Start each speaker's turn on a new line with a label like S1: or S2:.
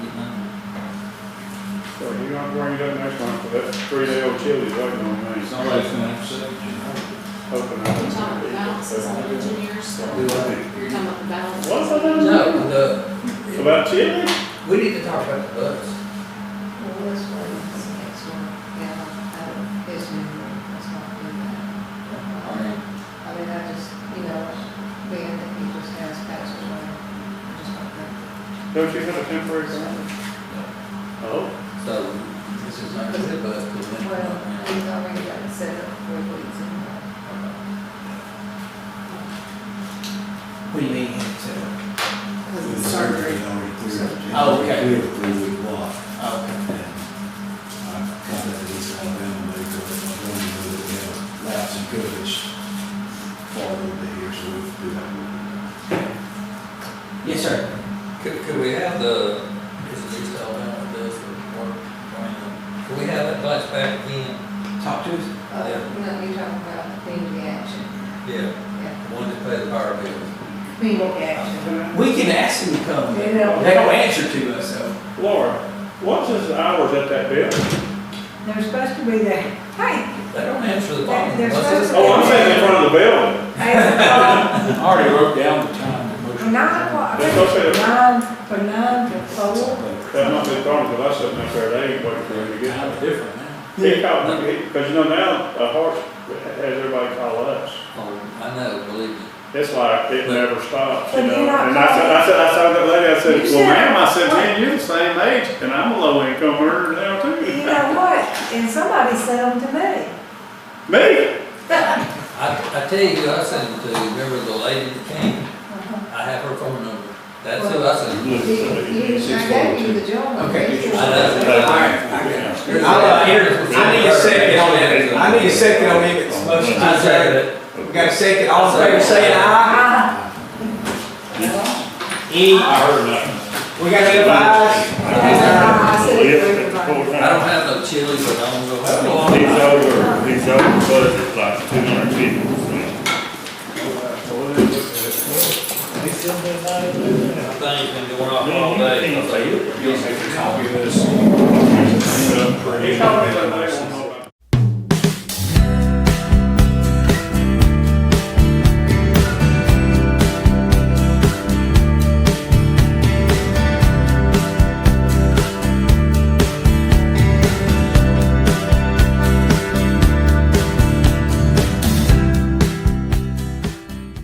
S1: So you're gonna bring it up next month, but that's three day old chili waiting on me.
S2: Somebody's gonna have to say, you
S1: Hoping I
S3: You're
S1: can-
S3: talking about the balances on engineers,
S2: know,
S3: you're
S2: do I?
S3: talking about the balances.
S1: What's I done?
S4: No, the,
S1: About chili?
S4: we need to talk about the bus.
S5: Well, this one is the next one, yeah, I don't, his memory, that's not good. I mean, I mean, I just, you know, being that he just has passed away, I just don't think.
S1: Don't you have a temporary permit? Oh,
S4: So this is not gonna be a bus, but we
S5: Well, he's already got it set up for weeks and
S4: We need to.
S3: Because of the surgery.
S4: Oh, okay.
S2: We were three week walk,
S4: oh, Okay.
S2: and I contacted East Alabama, they told us, I'm going to do it, yeah, laps and coverage, fall over here, so we'll do that.
S4: Yes, sir. Could, could we have the, this is East Alabama, this is work, um, could we have that bus back again? Talk to us.
S5: Uh, you know, you're talking about community action,
S4: Yeah,
S5: yeah,
S4: one to pay the power bill.
S5: community action.
S6: We can ask them to come.
S5: They
S6: They
S5: don't.
S6: don't answer to us, though.
S1: Laura, what's his hours at that building?
S7: They're supposed to be there. Hey,
S4: They don't answer the bottom of the
S7: They're supposed
S4: buses.
S7: to-
S1: Oh, I'm saying in front of the building.
S7: eight o'clock,
S2: I already wrote down the time. the motion.
S7: uh, nine o'clock,
S1: That's okay.
S7: nine, from nine to four.
S1: That might be the problem, because I sit up there, they ain't waiting for him to
S2: It's
S1: get
S2: kind of
S1: out.
S2: different now.
S1: He called me, because you know now, uh, Harts has everybody call us.
S4: Oh, I know, believe me.
S1: It's like, it never stops, you
S7: But
S1: know,
S7: you're not
S1: and I said, I said, I saw that lady, I said,
S7: You
S1: well,
S7: said-
S1: ma'am, I said, man, you're the same age, and I'm a low income earner now too.
S7: You know what? And somebody said them to me.
S1: Me?
S4: I, I tell you, who I sent them to, remember the lady that came?
S7: Uh-huh.
S4: I have her phone number. That's who I sent. them
S5: You, you, I gave you the job.
S6: Okay.
S4: to. I know.
S6: I, uh, I need a second on that. I need a second on Emmett's motion.
S4: I said it.
S6: We got a second, all in favor, say aye. Any,
S1: I heard nothing.
S6: we got any ayes?
S7: I said it to everybody.
S4: I don't have no chili, but I'm gonna go have one.
S8: He's over, he's over budget, like two hundred fifty percent.
S4: Thing's been going off all day.
S8: You
S2: You'll make a copy of this.
S1: He told me that they want